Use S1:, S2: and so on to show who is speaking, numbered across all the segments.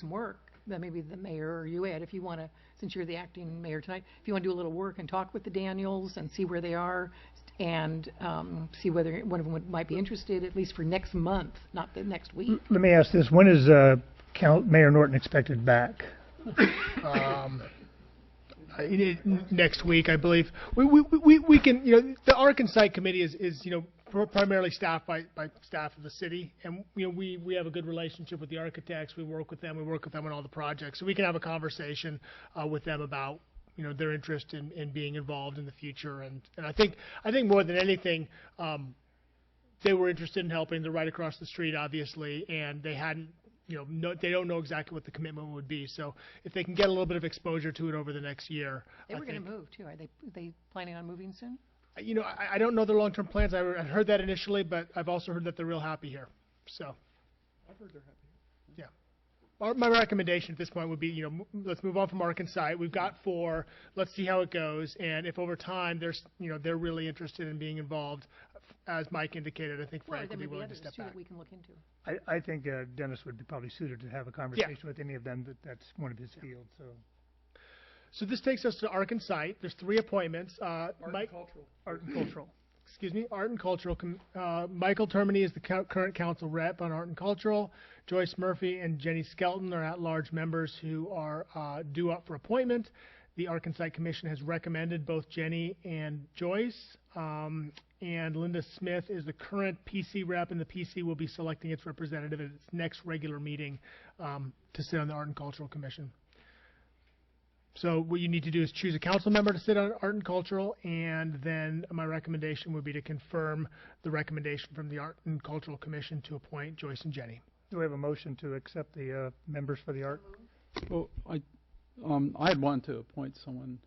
S1: some work, that maybe the mayor or you, Ed, if you want to, since you're the acting mayor tonight, if you want to do a little work and talk with the Daniels and see where they are and um, see whether one of them would- might be interested, at least for next month, not the next week.
S2: Let me ask this, when is, uh, Count, Mayor Norton expected back?
S3: um, uh, it- it- next week, I believe. We, we, we, we can, you know, the Arkansas Site Committee is, is, you know, pr- primarily staffed by, by staff of the city. And, you know, we, we have a good relationship with the architects. We work with them. We work with them on all the projects. So we can have a conversation, uh, with them about, you know, their interest in, in being involved in the future. And, and I think, I think more than anything, um, they were interested in helping. They're right across the street, obviously, and they hadn't, you know, no, they don't know exactly what the commitment would be. So if they can get a little bit of exposure to it over the next year,
S1: They
S3: I
S1: were going
S3: think-
S1: to move too. Are they, they planning on moving soon?
S3: you know, I, I don't know their long-term plans. I, I heard that initially, but I've also heard that they're real happy here. So. I've heard they're happy. Yeah. Our, my recommendation at this point would be, you know, m- let's move on from Arkansas. We've got four. Let's see how it goes. And if over time there's, you know, they're really interested in being involved, as Mike indicated, I think
S1: Well,
S3: Frank
S1: there
S3: would
S1: may
S3: be
S1: be
S3: willing to
S1: others
S3: step
S1: too
S3: back.
S1: that we can look into.
S2: I, I think uh, Dennis would be probably suited to have a conversation with any of them, but that's one of his fields, so.
S3: So this takes us to Arkansas. There's three appointments. Uh, Mike,
S2: cultural. Art and cultural.
S3: excuse me, Art and Cultural. com- Uh, Michael Termini is the cou- current council rep on Art and Cultural. Joyce Murphy and Jenny Skelton are at-large members who are uh, due up for appointment. The Arkansas Commission has recommended both Jenny and Joyce. Um, and Linda Smith is the current PC rep, and the PC will be selecting its representative at its next regular meeting um, to sit on the Art and Cultural Commission. So what you need to do is choose a council member to sit on Art and Cultural, and then my recommendation would be to confirm the recommendation from the Art and Cultural Commission to appoint Joyce and Jenny.
S2: Do we have a motion to accept the uh, members for the art?
S4: Well, I, um, I'd want to appoint someone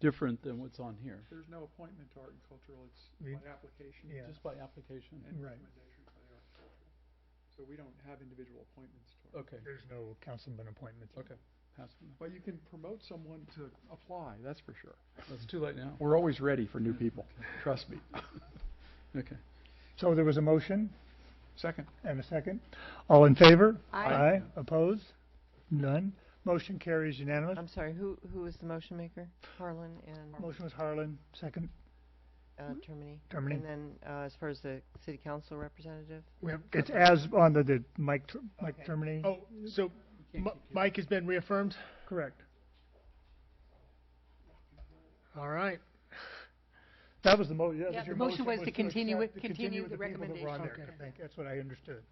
S4: different than what's on here.
S5: There's no appointment to art and cultural, it's
S2: We-
S5: by application.
S2: yeah.
S4: Just by application.
S5: And
S2: Right.
S5: recommendation by the art and cultural. So we don't have individual appointments to art.
S4: Okay,
S2: There's no councilman appointments.
S4: okay, pass it on.
S5: But you can promote someone to apply, that's for sure.
S4: It's too late now. We're always ready for new people, trust me. Okay.
S2: So there was a motion
S5: Second.
S2: and a second. All in favor?
S1: Aye.
S2: Opposed? None. Motion carries unanimous.
S6: I'm sorry, who, who was the motion maker? Harlan and,
S2: Motion was Harlan, second
S6: uh,
S1: Mm-hmm.
S6: Termini?
S2: Termini.
S6: And then, uh, as far as the city council representative?
S3: We have
S2: It's as on the, the Mike, Ter- Mike
S6: Okay.
S2: Termini?
S3: oh, so M- Mike has been reaffirmed.
S2: Correct.
S3: All right.
S2: That was the mo, that
S1: Yeah,
S2: was your motion.
S1: the motion was to continue
S2: accept-
S1: it- continue
S2: with
S1: the
S2: people that were on
S1: recommendation.
S2: there, I think, that's what I understood.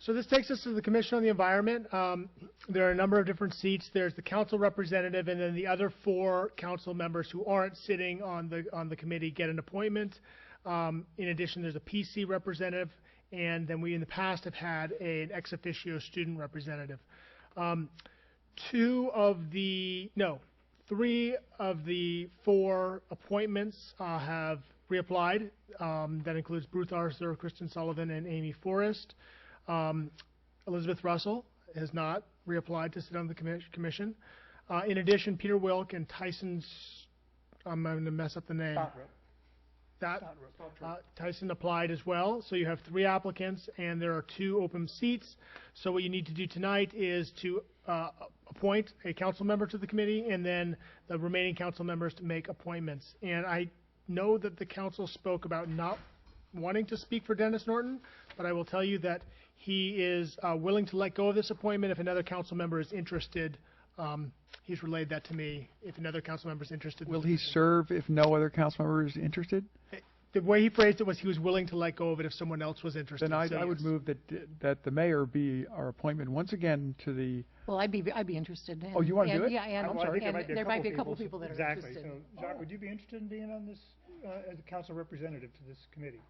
S3: So this takes us to the Commission on the Environment. Um, there are a number of different seats. There's the council representative, and then the other four council members who aren't sitting on the on the committee get an appointment. Um, in addition, there's a PC representative, and then we in the past have had an ex officio student representative. Um, two of the no, three of the four appointments uh, have reapplied. Um, that includes Bruce Arthur, Kristen Sullivan, and Amy Forrest. Um, Elizabeth Russell has not reapplied to sit on the commis- commission. Uh, in addition, Peter Wilk and Tyson, S- I'm going to mess up the name. That, uh, Tyson applied as well, so you have three applicants, and there are two open seats. So what you need to do tonight is to uh, appoint a council member to the committee, and then the remaining council members to make appointments. And I know that the council spoke about not wanting to speak for Dennis Norton, but I will tell you that he is uh, willing to let go of this appointment if another council member is interested. Um, He's relayed that to me, if another council member is interested. in the position.
S5: serve if no other council member is interested?
S3: The way he phrased it was he was willing to let go of it if someone else was interested.
S5: Then I,
S3: so
S5: I would
S3: yes.
S5: move that, that the mayor be our appointment once again to the,
S1: Well, I'd be, I'd be interested in.
S5: Oh, you wanna
S1: and-
S5: do it?
S1: Yeah, and,
S2: Well, I think
S1: and there might be a couple
S2: so-
S1: people that are interested.
S2: Exactly, so Jacques, would you be interested in being on this, uh, as a council representative to this committee?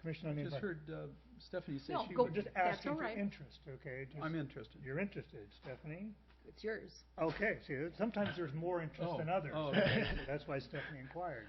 S2: Commission on the
S4: Just
S2: Environment?
S4: heard uh, Stephanie say
S1: No,
S4: she
S1: go-
S2: We're
S4: would,
S2: just
S1: That's
S2: asking
S1: all
S2: for
S1: right.
S2: interest, okay? Just-
S4: I'm interested.
S2: You're interested, Stephanie?
S1: It's yours.
S2: Okay, see, that- sometimes there's more interest
S4: Oh,
S2: than others.
S4: oh, okay.
S2: So That's why Stephanie inquired.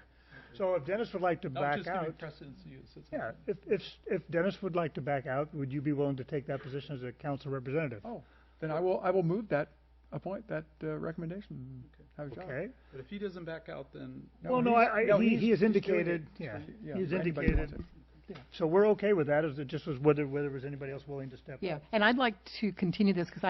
S2: So if Dennis would like to
S4: I was
S2: back
S4: just giving
S2: out,
S4: precedence to you. so it's
S2: yeah,
S4: okay.
S2: if, if, if Dennis would like to back out, would you be willing to take that position as a council representative?
S5: oh, then I will, I will move that, appoint that uh, recommendation. Have Jacques.
S2: Okay?
S4: But if he doesn't back out, then
S2: Well, no,
S5: he's-
S2: I- I- he-
S5: he's-
S2: he has
S5: he's doing
S2: indicated-
S5: it.
S2: yeah,
S5: Yeah,
S2: he's
S5: anybody wants
S2: indicated
S5: it.
S2: So we're okay with that, is it just was whether, whether was anybody else willing to step up?
S1: Yeah, and I'd like to continue this because I